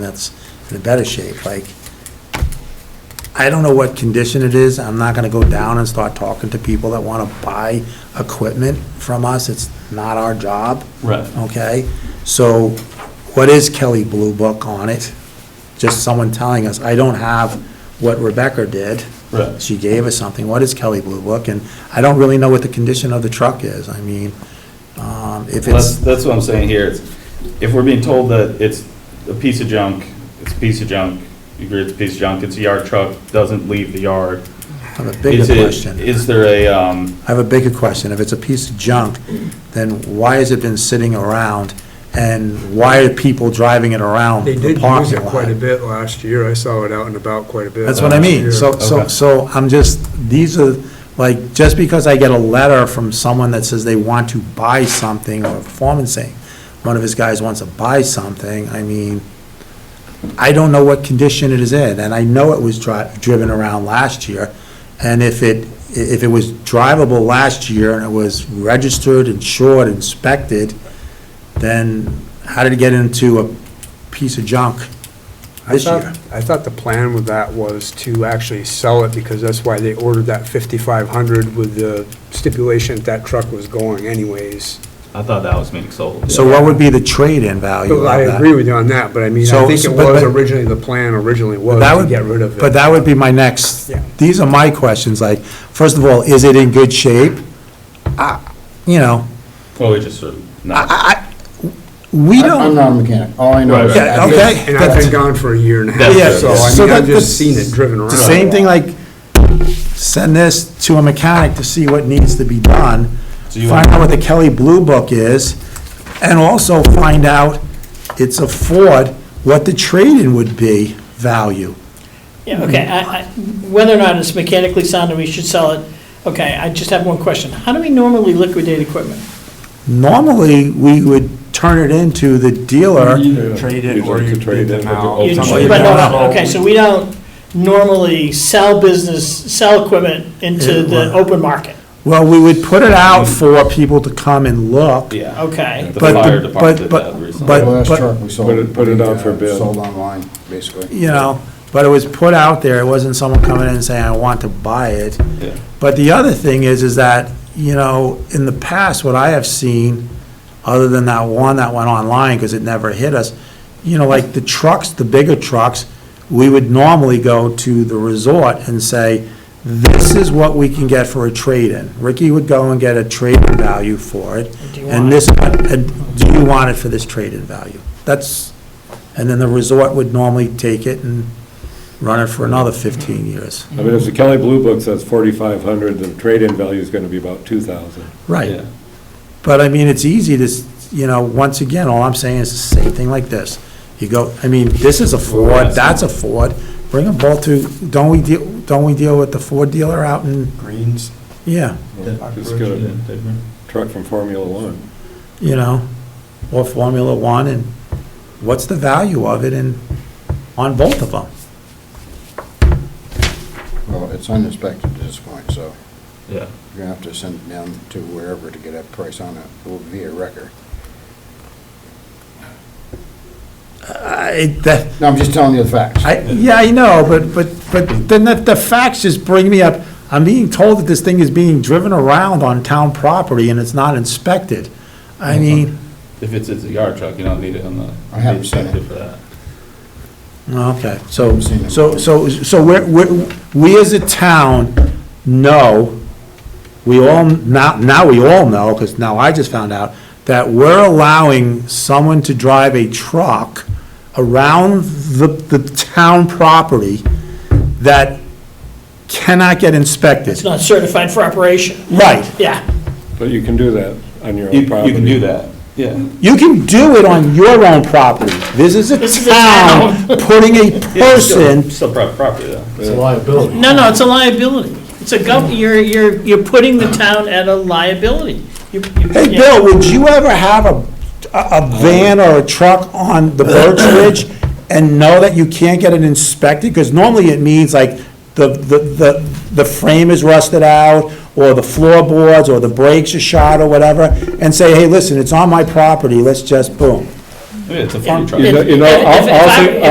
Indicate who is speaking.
Speaker 1: that's in a better shape, like, I don't know what condition it is, I'm not gonna go down and start talking to people that wanna buy equipment from us, it's not our job,
Speaker 2: Right.
Speaker 1: okay? So, what is Kelly Blue Book on it? Just someone telling us, I don't have what Rebecca did.
Speaker 2: Right.
Speaker 1: She gave us something, what is Kelly Blue Book? And I don't really know what the condition of the truck is, I mean, um, if
Speaker 2: That's,
Speaker 1: it's,
Speaker 2: that's what I'm saying here. It's- If we're being told that it's a piece of junk, it's a piece of junk, you agree it's a piece of junk, it's a yard truck, doesn't leave the yard.
Speaker 1: I have a bigger
Speaker 2: Is it-
Speaker 1: question.
Speaker 2: Is there a, um,
Speaker 1: I have a bigger question. If it's a piece of junk, then why has it been sitting around? And why are people driving it around
Speaker 3: They
Speaker 1: the
Speaker 3: did use it
Speaker 1: parking
Speaker 3: quite a
Speaker 1: lot?
Speaker 3: bit last year, I saw it out and about quite a bit.
Speaker 1: That's what I
Speaker 3: last
Speaker 1: mean.
Speaker 3: year.
Speaker 1: So, so,
Speaker 2: Okay.
Speaker 1: so I'm just, these are, like, just because I get a letter from someone that says they want to buy something or a performance thing, one of his guys wants to buy something, I mean, I don't know what condition it is in, and I know it was dri- driven around last year. And if it, if it was drivable last year and it was registered, insured, inspected, then how did it get into a piece of junk
Speaker 3: I
Speaker 1: this
Speaker 3: thought-
Speaker 1: year?
Speaker 3: I thought the plan with that was to actually sell it, because that's why they ordered that 5,500 with the stipulation that that truck was going anyways.
Speaker 2: I thought that was being sold.
Speaker 1: So what would be the trade-in value of
Speaker 3: But
Speaker 1: that?
Speaker 3: I agree with you on that, but I mean,
Speaker 1: So-
Speaker 3: I think it
Speaker 1: so- but-
Speaker 3: was
Speaker 1: but-
Speaker 3: originally, the plan originally was
Speaker 1: That
Speaker 3: to
Speaker 1: would-
Speaker 3: get rid of it.
Speaker 1: But that would be my next,
Speaker 3: Yeah.
Speaker 1: these are my questions, like, first of all, is it in good shape? I- You know,
Speaker 2: Well, we just sort of,
Speaker 1: I,
Speaker 2: not,
Speaker 1: I, I- we
Speaker 4: I- I'm
Speaker 1: don't,
Speaker 4: not a mechanic, all I know is.
Speaker 2: Right, right.
Speaker 1: Yeah, okay.
Speaker 3: And I've been gone for a year and a half,
Speaker 2: Yeah,
Speaker 3: so I
Speaker 1: so
Speaker 3: mean, I've
Speaker 1: that-
Speaker 3: just seen it driven around.
Speaker 1: the same thing, like, send this to a mechanic to see what needs to be done,
Speaker 2: So you
Speaker 1: find
Speaker 2: want-
Speaker 1: out what the Kelly Blue Book is, and also find out, it's a Ford, what the trade-in would be value.
Speaker 5: Yeah, okay, I, I, whether or not it's mechanically sound and we should sell it, okay, I just have one question. How do we normally liquidate equipment?
Speaker 1: Normally, we would turn it into the dealer.
Speaker 6: Trade it or you bid them out.
Speaker 5: You-
Speaker 1: somebody
Speaker 5: but no,
Speaker 1: down.
Speaker 5: Okay, so we don't normally sell business, sell equipment into the open market,
Speaker 1: Well, we would put it out for people to come and look.
Speaker 2: yeah.
Speaker 5: okay?
Speaker 2: The
Speaker 1: But the-
Speaker 2: fire department did
Speaker 1: but-
Speaker 2: that
Speaker 1: but-
Speaker 2: recently.
Speaker 4: The last
Speaker 1: but-
Speaker 4: truck we sold.
Speaker 6: Put it- put it out for
Speaker 4: uh,
Speaker 6: bid.
Speaker 4: Sold online, basically.
Speaker 1: You know, but it was put out there, it wasn't someone coming in and saying, I want to buy it.
Speaker 2: Yeah.
Speaker 1: But the other thing is, is that, you know, in the past, what I have seen, other than that one that went online, because it never hit us, you know, like the trucks, the bigger trucks, we would normally go to the resort and say, this is what we can get for a trade-in. Ricky would go and get a trade-in value for it.
Speaker 5: Do you
Speaker 1: And
Speaker 5: want
Speaker 1: this, and do you want it for this trade-in value? That's, and then the resort would normally take it and run it for another 15 years.
Speaker 6: I mean, if the Kelly Blue Book says forty-five hundred, the trade-in value is gonna be about two thousand.
Speaker 1: Right.
Speaker 2: Yeah.
Speaker 1: But I mean, it's easy to, s- you know, once again, all I'm saying is the same thing like this. You go, I mean, this is a Ford, that's a Ford, bring them both to, don't we deal, don't we deal with the Ford dealer out in,
Speaker 4: Greens.
Speaker 1: yeah,
Speaker 6: Just get a truck from Formula One.
Speaker 1: you know, or Formula One, and what's the value of it and on both of them?
Speaker 4: Well, it's uninspected at this point, so
Speaker 2: Yeah.
Speaker 4: you're gonna have to send it down to wherever to get a price on it, it will be a wrecker.
Speaker 1: I, that,
Speaker 4: No, I'm just telling you the facts.
Speaker 1: I, yeah, I know, but, but, but then the, the facts just bring me up, I'm being told that this thing is being driven around on town property and it's not inspected. I mean,
Speaker 2: If it's, it's a yard truck, you don't need it on the.
Speaker 4: I haven't seen
Speaker 2: incentive for
Speaker 4: it.
Speaker 2: that.
Speaker 1: Oh, okay, so,
Speaker 4: Haven't seen it.
Speaker 1: so, so, so we're, we're, we as a town know, we all, now, now we all know, because now I just found out, that we're allowing someone to drive a truck around the, the town property that cannot get inspected.
Speaker 5: It's not certified for operation,
Speaker 1: Right.
Speaker 5: yeah.
Speaker 6: But you can do that on your
Speaker 2: You,
Speaker 6: own property.
Speaker 2: you can do that, yeah.
Speaker 1: You can do it on your own property. This is
Speaker 5: This is
Speaker 1: a
Speaker 5: a
Speaker 1: town putting a
Speaker 2: Yeah, it's still-
Speaker 1: person,
Speaker 2: Still private property though.
Speaker 4: It's a liability.
Speaker 5: No, no, it's a liability. It's a gov, you're, you're, you're putting the town at a liability. You- you-
Speaker 1: hey,
Speaker 5: yeah.
Speaker 1: Bill, would you ever have a, a a van or a truck on the Birch Ridge and know that you can't get it inspected? Because normally it means like the, the, the, the frame is rusted out, or the floorboards, or the brakes are shot, or whatever, and say, hey, listen, it's on my property, let's just, boom.
Speaker 2: Yeah, It's a farm truck.
Speaker 6: You know, you know,
Speaker 5: If- if- if
Speaker 6: I'll-
Speaker 5: I-
Speaker 6: I'll-
Speaker 5: if